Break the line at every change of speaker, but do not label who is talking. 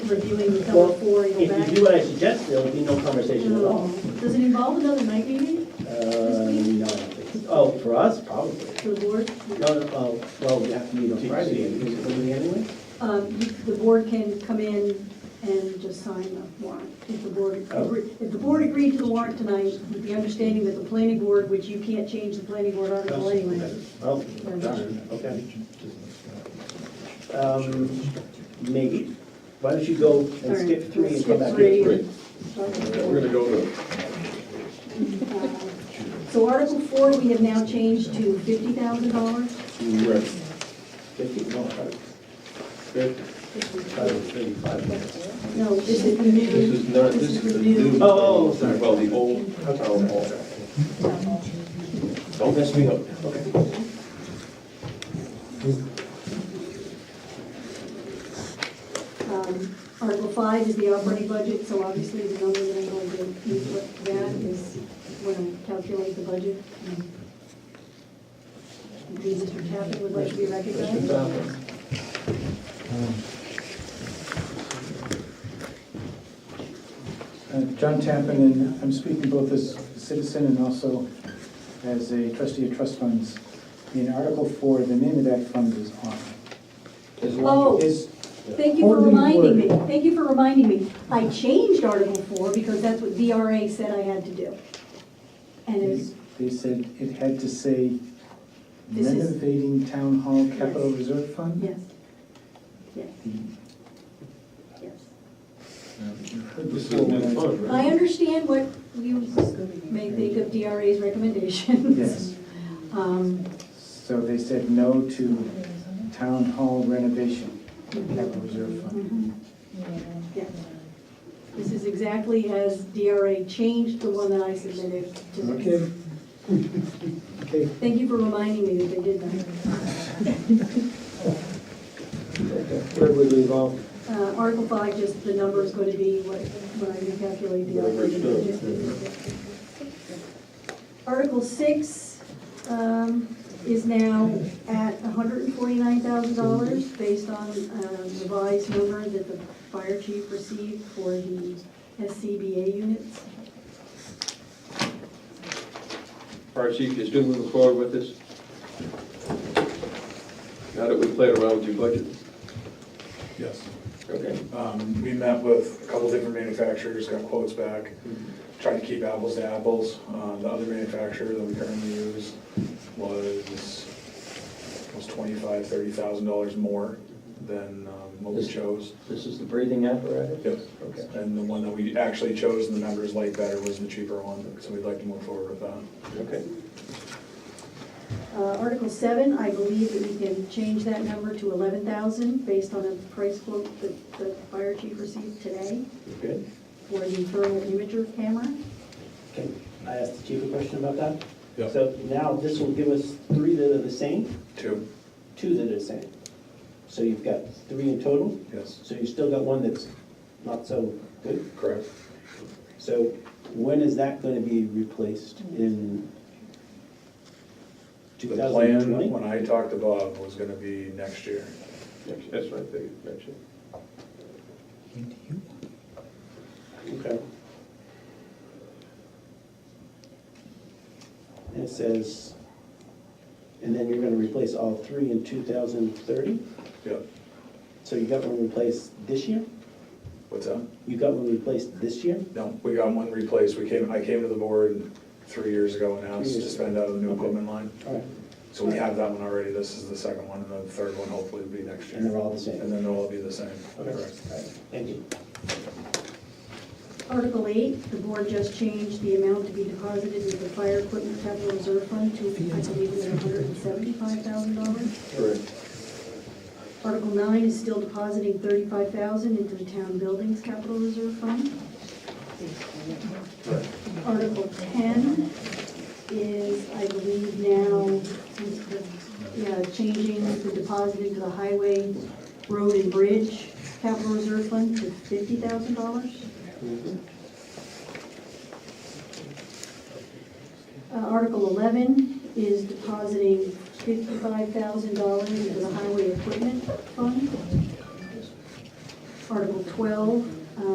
reviewing the come before and
If
go
you
back?
do what I suggest, there will be no conversation at all.
No. Does it involve another night meeting
Uh, no, I don't think so. Oh, for us, probably.
for the board?
No, no, oh, well, we have to meet on Friday, is it going anyway?
Um, you- The board can come in and just sign the warrant. If the board,
Oh.
agree- if the board agreed to the warrant tonight, with the understanding that the planning board, which you can't change the planning board article anyway.
Oh, darn, okay. Um, maybe. Why don't you go and skip three and come back?
Skip
to
three. Start with
We're
four.
gonna go to,
Uh, So Article Four, we have now changed to fifty thousand dollars.
right,
Fifty, no, five, five, thirty-five.
No, this is the new.
This is not, this is the new.
Oh, oh, sorry.
Well, the old town hall. Don't mess me up.
Um, Article five is the operating budget, so obviously the number that I'm going to use with that is when I calculate the budget. Indeed, Mr. Tappan would like to be
Mr.
recognized.
Falcon.
Uh, John Tappan, and I'm speaking both as a citizen and also as a trustee of trust funds. In Article 4, the name of that fund is on.
Oh.
Is-
Thank you for
Hardly
reminding me,
word.
thank you for reminding me. I changed Article four because that's what VRA said I had to do. And it's,
They said it had to say
This is-
renovating town hall capital reserve fund?
yes, yes, yes.
This is a new fund,
I
right?
understand what you may think of DRA's recommendations.
Yes.
Um,
So they said no to town hall renovation capital reserve fund.
mhm. Yeah. This is exactly as DRA changed the one that I submitted to them.
Okay. Okay,
Thank you for reminding me that they did that.
Where would we involve?
Uh, Article five, just the number is going to be what, when I recalculate the
Whatever it
operating. Article six, um, is now at hundred and forty-nine thousand dollars based on, um, revised number that the fire chief received for the SCBA units.
Fire chief, you still moving forward with this? Now that we played around with your budget,
Yes.
okay?
Um, We met with a couple different manufacturers, got quotes back, tried to keep apples to apples. Uh, The other manufacturer that we currently use was, was twenty-five, thirty thousand dollars more than um, what we
This-
chose.
This is the breathing apparatus?
Yep.
Okay.
And the one that we actually chose and the members liked better was the cheaper one, so we'd like to move forward with that.
Okay.
Uh, Article seven, I believe that we can change that number to eleven thousand based on a price quote that the fire chief received today
Good.
for the thermal imager camera.
Can I ask the chief a question about that?
Yeah.
So now this will give us three that are the same,
Two,
two that are the same. So you've got three in total,
yes,
so you've still got one that's not so good.
correct.
So when is that going to be replaced in
The plan,
2020?
when I talked to Bob, was gonna be next year.
Next- That's what I figured, next year.
Okay. And it says, and then you're going to replace all three in 2030?
Yep,
So you got one replaced this year?
what's up?
You got one replaced this year?
No, we got one replaced. We came, I came to the board three years ago and asked to spend out of the new equipment line.
All right.
So we have that one already. This is the second one, and the third one hopefully will be next year.
And they're all the same?
And then they'll all be the same.
Okay.
Correct.
All right. Thank you.
Article eight, the board just changed the amount to be deposited into the fire equipment capital reserve fund to, I believe, it was hundred and seventy-five thousand dollars.
Correct.
Article nine is still depositing thirty-five thousand into the town buildings capital reserve fund. Article ten is, I believe now, yeah, changing the deposit into the highway, road and bridge capital reserve fund to fifty thousand dollars. Uh, Article eleven is depositing fifty-five thousand dollars into the highway equipment fund. Article 12,